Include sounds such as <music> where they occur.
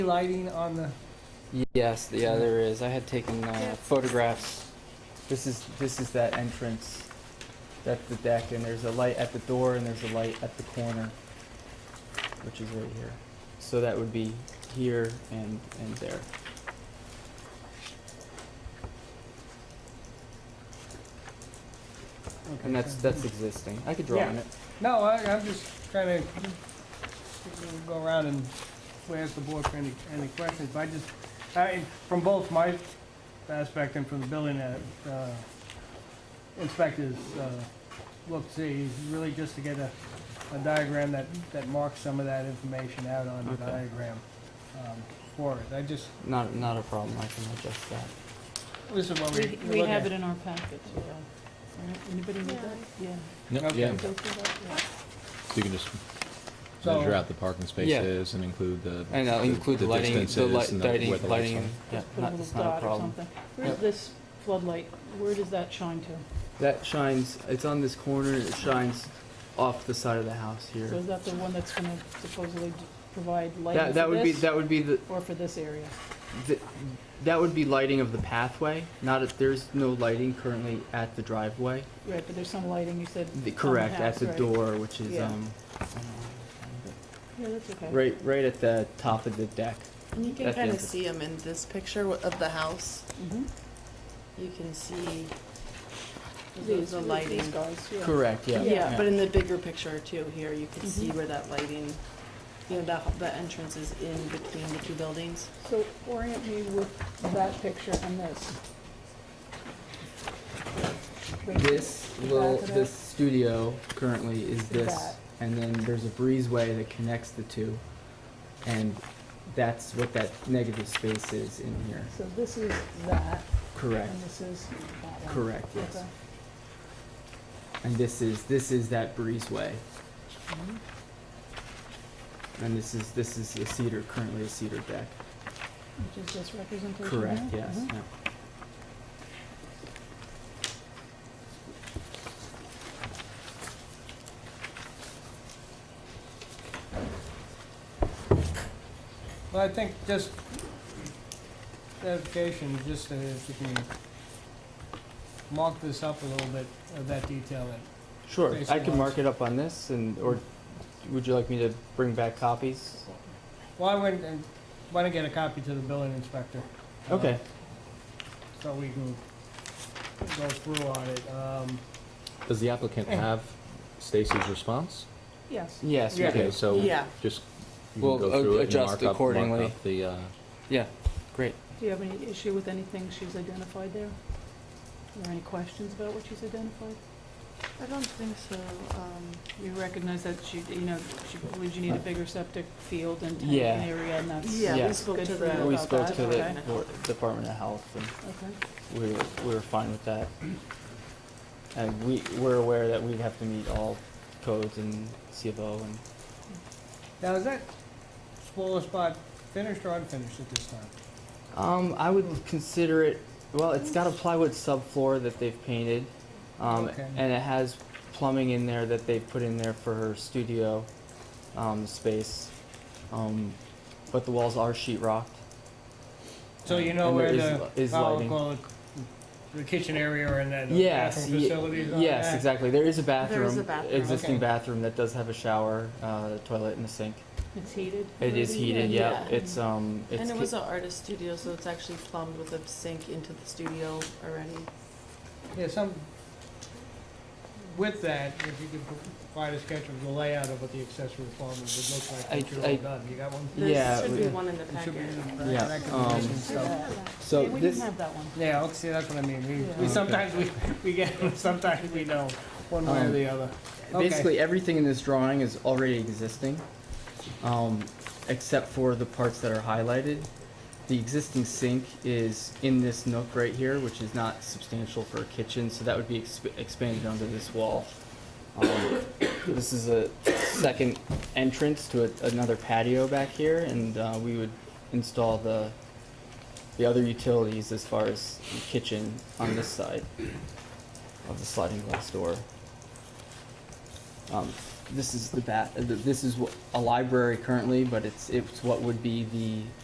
lighting on the, Yes, the- yeah, there is. I had taken uh, Yeah. photographs. This is, this is that entrance, that's the deck, and there's a light at the door, and there's a light at the corner, which is right here. So that would be here and, and there. And that's, that's existing. I could draw on it. no, I, I'm just trying to go around and ask the board for any, any questions, but I just, I, from both my aspect and from the building uh, inspectors, uh, look, see, really just to get a, a diagram that, that marks some of that information out on the Okay. diagram, um, for it. I just, Not, not a problem. I can adjust that. this is what we. We, we have it in our packet, yeah. Alright, Anybody need Yeah. that? Yeah. No, Okay. yeah, Go through that, yeah. so you can just So- measure out the parking spaces and include the. And I'll include the lighting, the distances light- and the- where the lighting, lights lighting. are. Yeah, Just put a not, little it's not a dot or problem. something. Where's Yep. this floodlight, where does that shine to? That shines, it's on this corner, it shines off the side of the house here. So is that the one that's gonna supposedly d- provide lighting That, that for would be, this, that would be the, or for this area? Th- That would be lighting of the pathway, not if, there's no lighting currently at the driveway. Right, but there's some lighting, you said. The- on Correct, at house, the right. door, which is, Yeah. um, Yeah, that's okay. right, right at the top of the deck. And you can At the kind of entrance. see them in this picture w- of the house. Mhm. You can see the- These, the these lighting. guys, yeah. Correct, yeah. Yeah, Mm-hmm. but in the bigger picture too, here, you can Mhm. see where that lighting, you know, that, that entrance is in between the two buildings. So orient me with that picture and this. Right here. This Back little, of this studio currently is this, That. and then there's a breezeway that connects the two. And that's what that negative space is in here. So this is that, Correct, and this is that one. correct, yes. Okay. And this is, this is that breezeway. Mhm. And this is, this is a cedar, currently a cedar deck. Which is this representation here? Correct, yes. Mhm. yeah. Well, I think just clarification, just uh, if you can mark this up a little bit, of that detail. that- Sure, Based I on can what? mark it up on this and, or would you like me to bring back copies? Well, I went and want to get a copy to the building inspector. uh, Okay, So we can go through on it. Um, Does the applicant have Stacy's response? Yes. yes, we Yeah. Okay, do. so Yeah. just. you can We'll, go uh, through it and adjust mark up- mark accordingly. up The, uh, Yeah, great. Do you have any issue with anything she's identified there? Or any questions about what she's identified? I don't think so, um, You recognize that she, you know, she believes you need a bigger septic field and tank Uh, Yeah. and area, and that's. yeah, we Yeah. spoke Good to for them you. We about spoke that. to the okay. Board- Department of Health and Okay, we were, we were fine with that. And we, we're aware that we'd have to meet all codes and CFO and Now, is that spoiler spot finished or unfinished at this time? Um, I would consider it, well, it's got a plywood subfloor that they've painted. Um, Okay. and it has plumbing in there that they've put in there for her studio, um, space. Um, but the walls are sheet rocked. So you know Uh, And there where is the, li- is I'll lighting. call it the kitchen area and then the Yes, bathroom ye- facilities on yes, that? exactly. There is a bathroom, There is a bathroom. existing Okay. bathroom that does have a shower, uh, toilet and a sink. it's heated? It is maybe? heated, yeah. Yeah. It's, um, it's. And it ca- was an artist studio, so it's actually plumbed with a sink into the studio already. Yeah, some, with that, if you could provide a sketch of the layout of what the accessory apartment would look like, I- once you're I- all done, you got one? Yeah, There should be we- one in the It should be packet. in the Yeah, back of the um, kitchen, We didn't so- have that. So Yeah, We didn't this, have that one. Yeah, okay, see, that's what I mean, Yeah. we, we, sometimes we, we get, <laughs> sometimes we know, one way or Um, the other. Okay. Basically, everything in this drawing is already existing, um, except for the parts that are highlighted. The existing sink is in this nook right here, which is not substantial for a kitchen, so that would be exp- expanded onto this wall. Um, This is a second entrance to a- another patio back here, and, uh, we would install the, the other utilities as far as the kitchen on this side of the sliding glass door. Um, this is the bat. This is wh- a library currently, but it's it's what would be the